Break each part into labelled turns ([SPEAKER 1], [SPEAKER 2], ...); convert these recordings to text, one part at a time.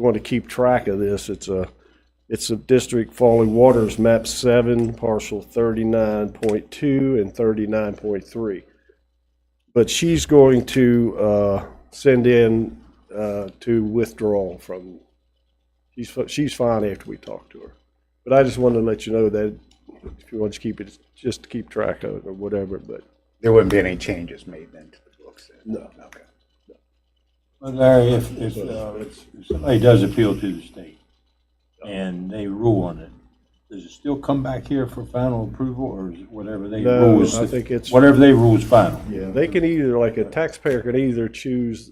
[SPEAKER 1] want to keep track of this, it's a, it's a District Falling Waters Map 7, parcel 39.2 and 39.3. But she's going to uh, send in uh, to withdraw from, she's, fi- she's fine after we talk to her. But I just wanted to let you know that if you want to keep it, just to keep track of it or whatever, but
[SPEAKER 2] There wouldn't be any changes made then to the books? then?
[SPEAKER 1] No.
[SPEAKER 2] Okay.
[SPEAKER 3] Well, Larry, if, if, uh, if somebody does appeal to the state and they rule on it, does it still come back here for final approval or is it whatever they
[SPEAKER 1] No,
[SPEAKER 3] rule is?
[SPEAKER 1] I think it's-
[SPEAKER 3] Whatever they rule is final.
[SPEAKER 1] Yeah, they can either, like a taxpayer can either choose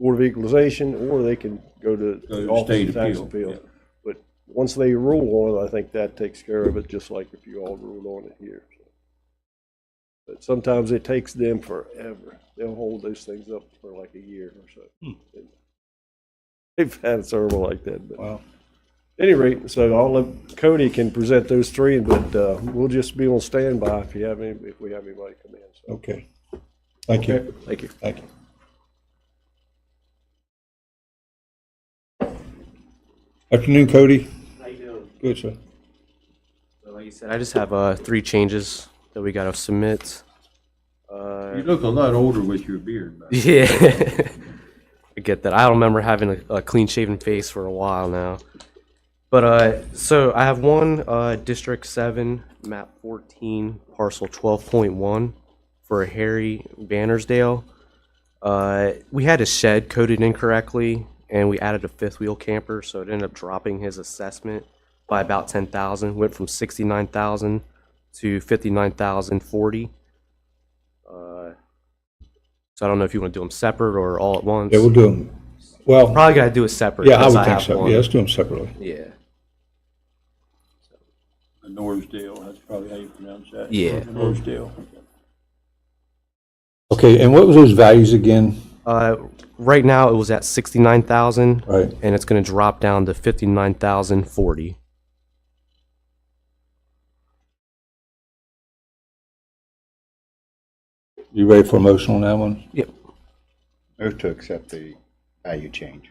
[SPEAKER 1] Board of Equalization, or they can go to
[SPEAKER 3] Go to
[SPEAKER 1] the Office
[SPEAKER 3] state
[SPEAKER 1] of Tax
[SPEAKER 3] appeal,
[SPEAKER 1] Appeals.
[SPEAKER 3] yeah.
[SPEAKER 1] But once they rule on it, I think that takes care of it, just like if you all ruled on it here. But sometimes it takes them forever. They'll hold those things up for like a year or so. They've had several like that, but
[SPEAKER 3] Well,
[SPEAKER 1] any rate, so I'll let Cody can present those three, but uh, we'll just be on standby if you have any, if we have anybody come in. So,
[SPEAKER 4] Okay. Thank you.
[SPEAKER 1] Thank you.
[SPEAKER 4] Thank you. Afternoon, Cody.
[SPEAKER 5] How you doing?
[SPEAKER 4] Good, sir.
[SPEAKER 5] So like you said, I just have uh, three changes that we gotta submit. Uh,
[SPEAKER 3] you look a lot older with your beard, but
[SPEAKER 5] yeah, I get that. I don't remember having a, a clean-shaven face for a while now. But uh, so I have one uh, District Seven, Map Fourteen, Parcel Twelve Point One, for Harry Bannersdale. Uh, we had a shed coded incorrectly, and we added a fifth wheel camper, so it ended up dropping his assessment by about ten thousand. Went from sixty-nine thousand to fifty-nine thousand forty. Uh, so I don't know if you want to do them separate or all at once.
[SPEAKER 4] Yeah, we'll do them. Well,
[SPEAKER 5] Probably gotta do it separate.
[SPEAKER 4] yeah, I
[SPEAKER 5] because
[SPEAKER 4] would think
[SPEAKER 5] have
[SPEAKER 4] so.
[SPEAKER 5] one.
[SPEAKER 4] Yeah, let's do them separately.
[SPEAKER 5] Yeah.
[SPEAKER 3] the Norsdale, that's probably how you pronounce that.
[SPEAKER 5] Yeah.
[SPEAKER 3] The Norsdale.
[SPEAKER 4] Okay, and what was those values again?
[SPEAKER 5] Uh, right now it was at sixty-nine thousand.
[SPEAKER 4] Right.
[SPEAKER 5] And it's gonna drop down to fifty-nine thousand forty.
[SPEAKER 4] You ready for a motion on that one?
[SPEAKER 5] Yep.
[SPEAKER 2] Move to accept the value change.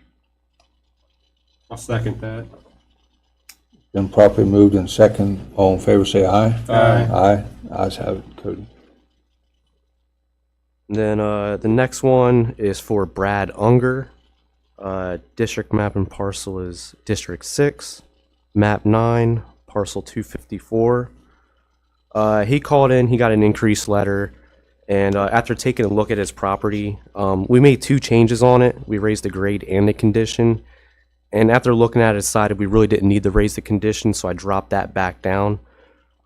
[SPEAKER 6] I'll second that.
[SPEAKER 4] Been properly moved and second. All in favor, say aye.
[SPEAKER 3] Aye.
[SPEAKER 4] Aye. Ayes have it, Cody.
[SPEAKER 5] And then, uh, the next one is for Brad Unger. Uh, district map and parcel is District Six, Map Nine, Parcel Two Fifty-four. Uh, he called in, he got an increase letter, and, uh, after taking a look at his property, um, we made two changes on it. We raised the grade and the condition. And after looking at it, decided we really didn't need to raise the condition, so I dropped that back down.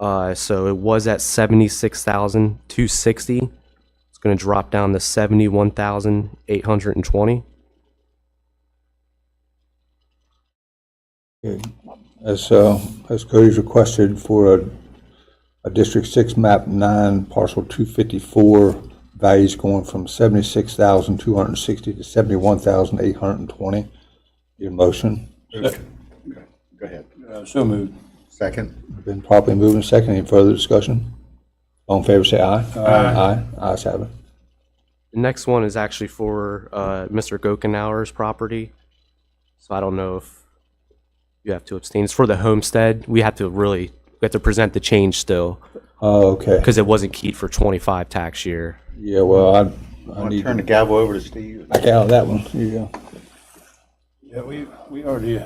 [SPEAKER 5] Uh, so it was at seventy-six thousand two sixty. It's going to drop down to 71,820.
[SPEAKER 4] Okay, As, uh, as Cody's requested for a, a District Six map nine parcel two fifty-four, values going from seventy-six thousand two hundred and sixty to seventy-one thousand eight hundred and twenty. Your motion,
[SPEAKER 2] Okay, Go ahead.
[SPEAKER 3] Uh, So moved.
[SPEAKER 2] Second?
[SPEAKER 4] been properly moved and seconded. Any further discussion? All in favor, say aye. Aye. Aye, ayes have it.
[SPEAKER 5] The next one is actually for uh, Mr. Gokenauer's property. So I don't know if you have to abstain. It's for the homestead. We have to really, we have to present the change still
[SPEAKER 4] Oh, okay.
[SPEAKER 5] because it wasn't keyed for 25 tax year.
[SPEAKER 4] Yeah, well, I, I
[SPEAKER 2] Want to
[SPEAKER 4] need,
[SPEAKER 2] turn the gavel over to Steve?
[SPEAKER 4] back out of that one. Yeah.
[SPEAKER 3] Yeah, we, we already,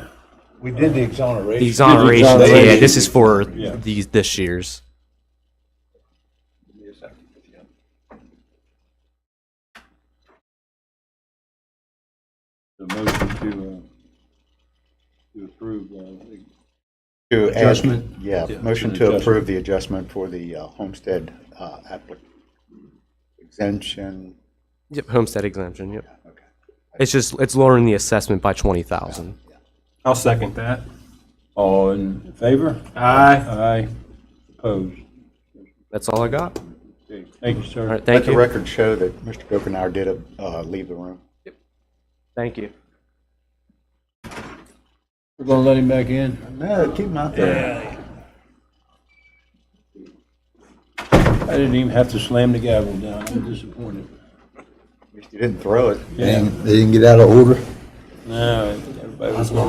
[SPEAKER 4] We did the
[SPEAKER 5] The
[SPEAKER 4] exoneration.
[SPEAKER 5] exoneration, yeah,
[SPEAKER 4] exoneration.
[SPEAKER 5] this is for
[SPEAKER 3] Yeah.
[SPEAKER 5] these, this year's.
[SPEAKER 3] the motion to, uh, to approve, uh, the
[SPEAKER 2] To add-
[SPEAKER 3] Adjustment?
[SPEAKER 2] Yeah,
[SPEAKER 3] Yeah,
[SPEAKER 2] motion
[SPEAKER 3] to the
[SPEAKER 2] to approve the adjustment for the uh, homestead uh, applic, exemption.
[SPEAKER 5] Yep, homestead exemption, yep.
[SPEAKER 2] Okay.
[SPEAKER 5] It's just, it's lowering the assessment by 20,000.
[SPEAKER 6] I'll second that.
[SPEAKER 3] All in favor?
[SPEAKER 6] Aye.
[SPEAKER 3] Aye. Opposed?
[SPEAKER 5] That's all I got.
[SPEAKER 3] Okay, Thank you,
[SPEAKER 5] All
[SPEAKER 3] sir.
[SPEAKER 5] right,
[SPEAKER 2] Let
[SPEAKER 5] thank
[SPEAKER 2] the
[SPEAKER 5] you.
[SPEAKER 2] record show that Mr. Gokenhour did uh, leave the room.
[SPEAKER 5] Thank you.
[SPEAKER 3] We're gonna let him back in.
[SPEAKER 2] No, keep him out there.
[SPEAKER 3] I didn't even have to slam the gavel down. I'm disappointed.
[SPEAKER 2] At least You didn't throw it.
[SPEAKER 4] They didn't get out of order.
[SPEAKER 3] No, everybody favor?